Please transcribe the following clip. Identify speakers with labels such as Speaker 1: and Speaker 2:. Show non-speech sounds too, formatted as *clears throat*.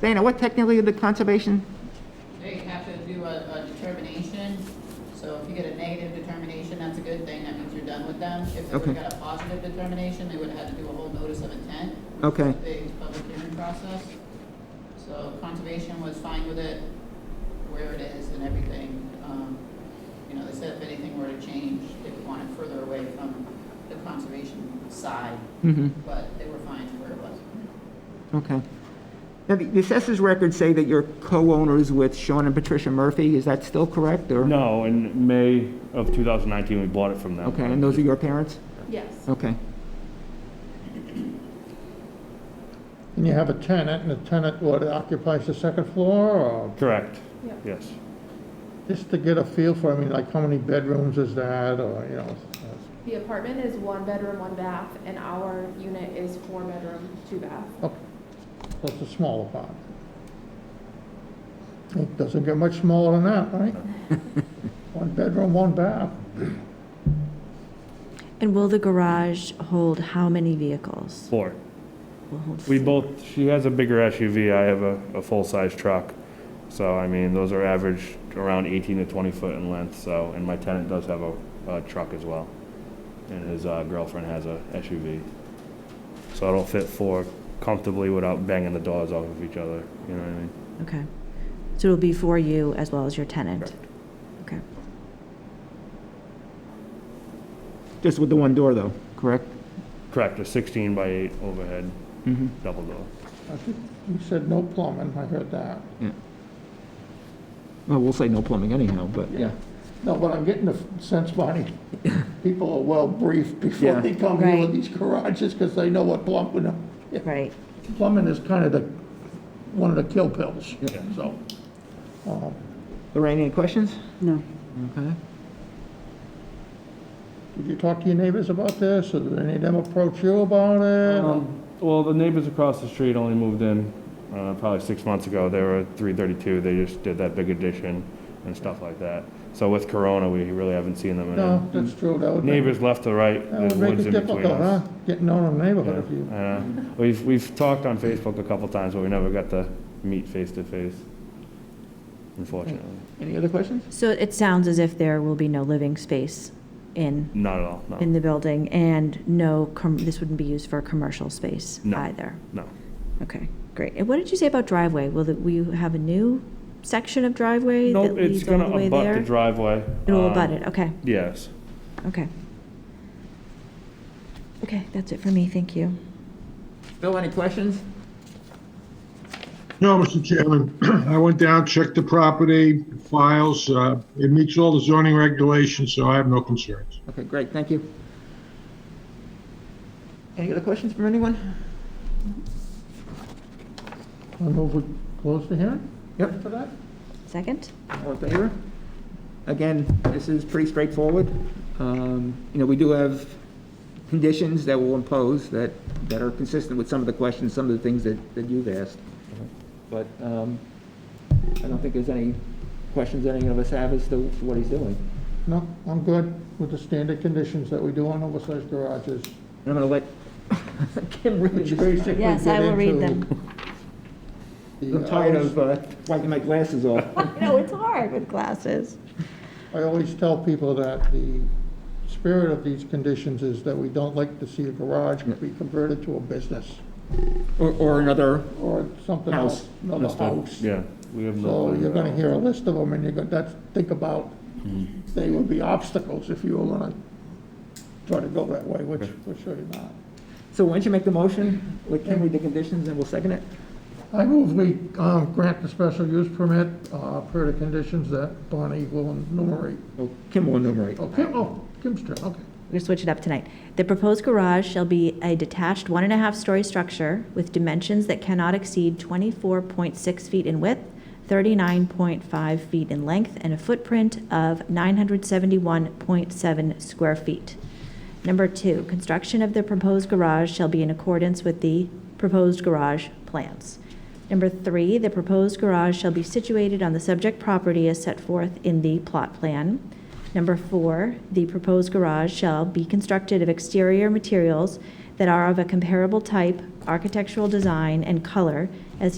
Speaker 1: Dana, what technically the conservation?
Speaker 2: They have to do a, a determination, so if you get a negative determination, that's a good thing, that means you're done with them. If they
Speaker 1: Okay.
Speaker 2: would've got a positive determination, they would've had to do a whole notice of intent,
Speaker 1: Okay,
Speaker 2: big public hearing process. So conservation was fine with it, where it is and everything. Um, You know, they said if anything were to change, they would want it further away from the conservation side,
Speaker 1: mhm,
Speaker 2: but they were fine where it was.
Speaker 1: okay. Now, the the assessors records say that you're co-owners with Sean and Patricia Murphy, is that still correct, or?
Speaker 3: No, in May of 2019, we bought it from them.
Speaker 1: Okay, and those are your parents?
Speaker 4: Yes.
Speaker 1: Okay,
Speaker 5: And you have a tenant, and the tenant, what, occupies the second floor, or
Speaker 3: Correct,
Speaker 4: Yeah.
Speaker 3: yes.
Speaker 5: just to get a feel for, I mean, like, how many bedrooms is that, or, you know?
Speaker 4: The apartment is one bedroom, one bath, and our unit is four bedroom, two bath.
Speaker 5: oh, so It's a small apartment. It doesn't get much smaller than that,
Speaker 1: *laughs*
Speaker 5: right? One bedroom, one bath.
Speaker 6: And will the garage hold how many vehicles?
Speaker 3: Four.
Speaker 6: Will hold
Speaker 3: We
Speaker 6: four.
Speaker 3: both, she has a bigger SUV, I have a, a full-size truck. So, I mean, those are average around 18 to 20 foot in length, so, and my tenant does have a, a truck as well. And his uh, girlfriend has a SUV. So it'll fit four comfortably without banging the doors off of each other, you know what I mean?
Speaker 6: Okay. So it'll be for you as well as your tenant? Okay.
Speaker 1: just with the one door, though, correct?
Speaker 3: Correct, a 16 by 8 overhead,
Speaker 1: Mhm.
Speaker 3: double door.
Speaker 5: I think you said no plumbing, I heard that.
Speaker 1: Well, we'll say no plumbing anyhow, but, yeah.
Speaker 5: No, but I'm getting the sense,
Speaker 1: *laughs*
Speaker 5: Bonnie, people are well briefed
Speaker 1: Yeah.
Speaker 5: before they come here
Speaker 6: Right.
Speaker 5: with these garages, because they know what plumbing, *laughs*
Speaker 6: Right.
Speaker 5: plumbing is kind of the, one of the kill pills,
Speaker 3: Yeah.
Speaker 5: so. um,
Speaker 1: Lorraine, any questions?
Speaker 7: No.
Speaker 1: Okay.
Speaker 5: Did you talk to your neighbors about this, or did any of them approach you about it?
Speaker 3: Um, Well, the neighbors across the street only moved in uh, probably six months ago. They were 332. They just did that big addition and stuff like that. So with Corona, we really haven't seen them. in
Speaker 5: No, Oh, that's true, that would. make-
Speaker 3: um, Neighbors left to right,
Speaker 5: That
Speaker 3: the
Speaker 5: would make
Speaker 3: woods
Speaker 5: it
Speaker 3: in between
Speaker 5: difficult, huh?
Speaker 3: us.
Speaker 5: Getting to know the neighborhood if you,
Speaker 3: Yeah, I know. We've, we've talked on Facebook a couple times, but we never got to meet face to face, unfortunately.
Speaker 1: Any other questions?
Speaker 6: So it sounds as if there will be no living space in,
Speaker 3: Not at all, no,
Speaker 6: in the building and no, com- this wouldn't be used for a commercial space
Speaker 3: No.
Speaker 6: either?
Speaker 3: no.
Speaker 6: Okay, great. And what did you say about driveway? Will, it- will you have a new section of driveway that
Speaker 3: Nope, it's
Speaker 6: leads all the
Speaker 3: gonna
Speaker 6: way
Speaker 3: abut the
Speaker 6: there?
Speaker 3: driveway.
Speaker 6: It'll
Speaker 3: um,
Speaker 6: abut it, okay,
Speaker 3: Yes.
Speaker 6: okay. Okay, that's it for me, thank you.
Speaker 1: Bill, any questions?
Speaker 8: No, Mr. Chairman, *clears throat* I went down, checked the property files. uh, It meets all the zoning regulations, so I have no concerns.
Speaker 1: Okay, great, thank you. Any other questions from anyone?
Speaker 5: I move we close the hearing
Speaker 1: Yep.
Speaker 5: for that?
Speaker 6: Second?
Speaker 1: All in favor? Again, this is pretty straightforward. Um, You know, we do have conditions that we'll impose that, that are consistent with some of the questions, some of the things that, that you've asked. But um, I don't think there's any questions any of us have as to what he's doing.
Speaker 5: No, I'm good with the standard conditions that we do on oversized garages.
Speaker 1: And I'm going to let *laughs* Kim read
Speaker 5: Which
Speaker 1: this.
Speaker 5: basically
Speaker 6: Yes, I
Speaker 5: get
Speaker 6: will read
Speaker 5: into
Speaker 6: them.
Speaker 5: the-
Speaker 1: I'm tired of uh, wiping my glasses off.
Speaker 6: No, it's hard with glasses.
Speaker 5: I always tell people that the spirit of these conditions is that we don't like to see a garage be converted to a business
Speaker 1: Or, or another,
Speaker 5: or something
Speaker 1: House.
Speaker 5: else, another house.
Speaker 3: Yeah, we have no.
Speaker 5: So
Speaker 3: plans
Speaker 5: you're
Speaker 3: at all.
Speaker 5: gonna hear a list of them, and you're gonna, that's, think about,
Speaker 1: Mm-hmm.
Speaker 5: they would be obstacles if you were gonna try to go that way, which we're sure you're not.
Speaker 1: so why don't you make the motion, let Kim read the conditions, and we'll second it?
Speaker 5: I move we um, grant the special use permit uh, per the conditions that Bonnie will enumerate.
Speaker 1: Oh, Kim will enumerate.
Speaker 5: Oh, Kim, oh, Kim's turn, okay.
Speaker 6: We're gonna switch it up tonight. The proposed garage shall be a detached one and a half story structure with dimensions that cannot exceed twenty-four point six feet in width, thirty-nine point five feet in length, and a footprint of nine hundred seventy-one point seven square feet. Number two, construction of the proposed garage shall be in accordance with the proposed garage plans. Number three, the proposed garage shall be situated on the subject property as set forth in the plot plan. Number four, the proposed garage shall be constructed of exterior materials that are of a comparable type, architectural design, and color as